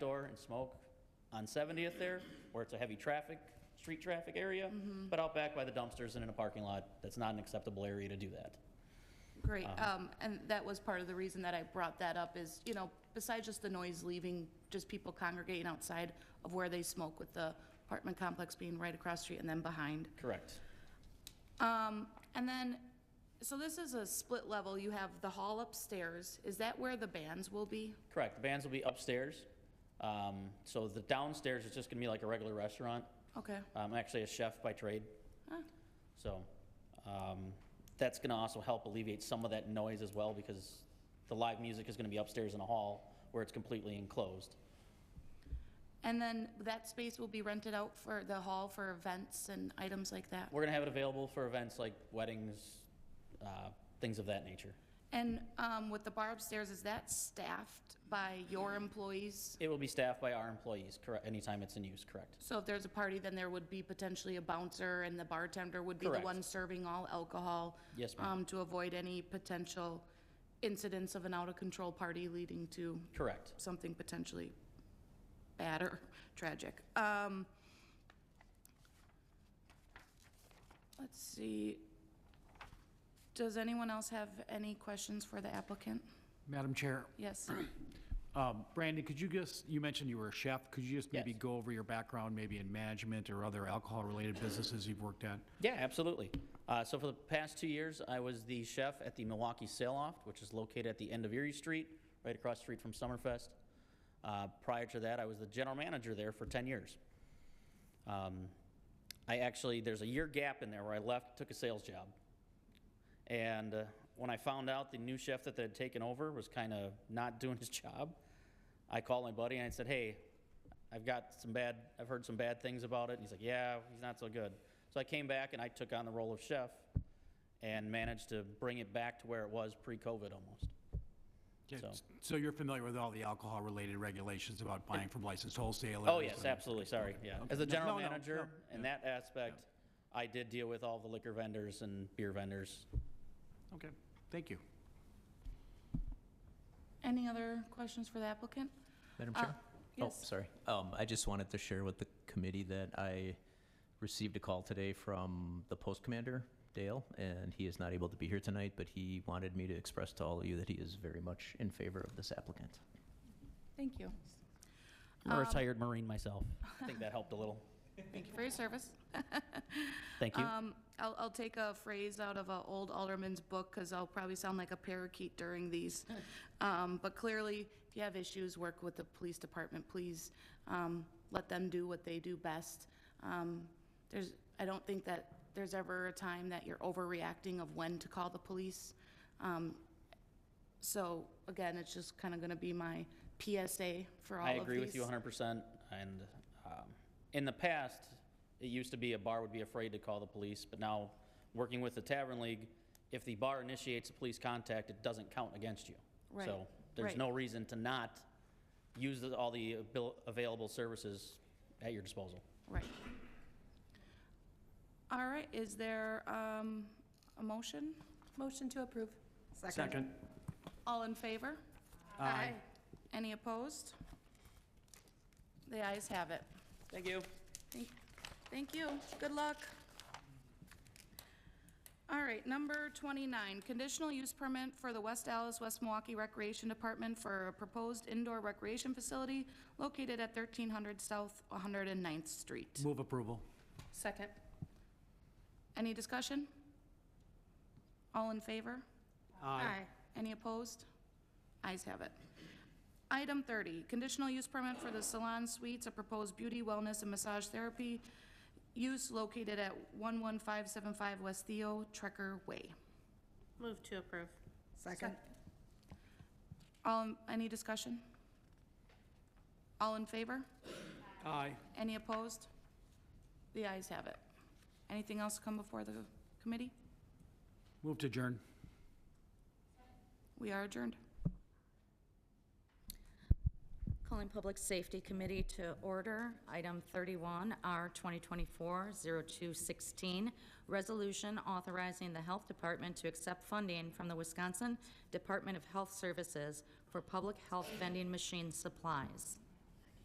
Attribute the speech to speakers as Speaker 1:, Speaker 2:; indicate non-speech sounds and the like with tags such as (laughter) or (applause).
Speaker 1: and smoke on 70th there, where it's a heavy traffic, street traffic area, but out back by the dumpsters and in a parking lot, that's not an acceptable area to do that.
Speaker 2: Great, um, and that was part of the reason that I brought that up is, you know, besides just the noise leaving, just people congregating outside of where they smoke with the apartment complex being right across the street and then behind.
Speaker 1: Correct.
Speaker 2: Um, and then, so this is a split level, you have the hall upstairs, is that where the bands will be?
Speaker 1: Correct. The bands will be upstairs. Um, So the downstairs is just going to be like a regular restaurant. Um,
Speaker 2: Okay,
Speaker 1: I'm actually a chef by trade.
Speaker 2: Huh.
Speaker 1: So um, that's going to also help alleviate some of that noise as well because the live music is going to be upstairs in a hall where it's completely enclosed.
Speaker 2: and then that space will be rented out for the hall for events and items like that?
Speaker 1: We're going to have it available for events like weddings, uh, things of that nature.
Speaker 2: And, um, with the bar upstairs, is that staffed by your employees?
Speaker 1: It will be staffed by our employees, correct, anytime it's in use, correct?
Speaker 2: So if there's a party, then there would be potentially a bouncer and the bartender would be the
Speaker 1: Correct.
Speaker 2: one serving all alcohol?
Speaker 1: Yes, ma'am.
Speaker 2: um, To avoid any potential incidents of an out-of-control party leading to
Speaker 1: Correct.
Speaker 2: something potentially bad or (laughs) tragic. Um, Let's see. Does anyone else have any questions for the applicant?
Speaker 3: Madam Chair,
Speaker 1: (clears throat)
Speaker 2: Yes.
Speaker 3: um, Brandon, could you just, you mentioned you were a chef, could you just maybe
Speaker 1: Yes.
Speaker 3: go over your background, maybe in management or other alcohol-related businesses you've worked at?
Speaker 1: Yeah, absolutely. Uh, so for the past two years, I was the chef at the Milwaukee Sail Off, which is located at the end of Erie Street, right across the street from Summerfest. Uh, prior to that, I was the general manager there for 10 years. Um, I actually, there's a year gap in there where I left, took a sales job. And uh, when I found out the new chef that they had taken over was kind of not (laughs) doing his job, I called my buddy and I said, "Hey, I've got some bad. I've heard some bad things about it." And he's like, "Yeah, he's not so good." So I came back and I took on the role of chef, and managed to bring it back to where it was pre-COVID almost.
Speaker 3: Okay,
Speaker 1: So-
Speaker 3: So you're familiar with all the alcohol-related regulations about buying from licensed wholesalers?
Speaker 1: Oh yes,
Speaker 3: and-
Speaker 1: absolutely. Sorry. Yeah. As a
Speaker 3: No,
Speaker 1: general
Speaker 3: no, no,
Speaker 1: manager in that aspect, I did deal with all the liquor vendors and beer vendors.
Speaker 3: Okay, thank you.
Speaker 2: Any other questions for the applicant?
Speaker 4: Madam
Speaker 2: Uh,
Speaker 4: Chair?
Speaker 2: yes.
Speaker 4: Oh, sorry. Um, I just wanted to share with the committee that I received a call today from the post commander, Dale, and he is not able to be here tonight, but he wanted me to express to all of you that he is very much in favor of this applicant.
Speaker 2: Thank you.
Speaker 1: I'm a retired Marine myself. I think that helped a little.
Speaker 2: Thank you for your service.
Speaker 1: Thank you.
Speaker 2: Um, I'll, I'll take a phrase out of an old alderman's book, because I'll probably sound like a parakeet during these. Um, but clearly, if you have issues, work with the police department, please. Um, let them do what they do best. Um, there's, I don't think that there's ever a time that you're overreacting of when to call the police. Um, so again, it's just kind of going to be my PSA for all of
Speaker 1: I
Speaker 2: these.
Speaker 1: agree with you 100%. And um, in the past, it used to be a bar would be afraid to call the police, but now, working with the Tavern League, if the bar initiates a police contact, it doesn't count against you.
Speaker 2: Right,
Speaker 1: So there's
Speaker 2: right.
Speaker 1: no reason to not use the- all the abil- available services at your disposal.
Speaker 2: Right. All right, is there um, a motion? Motion to approve.
Speaker 3: Second.
Speaker 2: All in favor? Aye. Any opposed? The ayes have it.
Speaker 1: Thank you.
Speaker 2: Thank- Thank you. Good luck. All right, number 29, conditional use permit for the West Allis, West Milwaukee Recreation Department for a proposed indoor recreation facility located at 1300 South 109th Street.
Speaker 3: Move approval.
Speaker 2: Second. Any discussion? All in favor? Any opposed? Ayes have it. Item 30, conditional use permit for the Salon Suites, a proposed beauty, wellness, and massage therapy use located at 11575 West Theo Trekker Way.
Speaker 5: Move to approve.
Speaker 6: Second.
Speaker 2: All, in- any discussion? All in favor?
Speaker 3: Aye.
Speaker 2: Any opposed? The ayes have it. Anything else come before the committee?
Speaker 3: Move to adjourn.
Speaker 2: We are adjourned.
Speaker 6: Calling Public Safety Committee to order. Item 31, R 2024-0216, resolution authorizing the Health Department to accept funding from the Wisconsin Department of Health Services for public health vending machine supplies.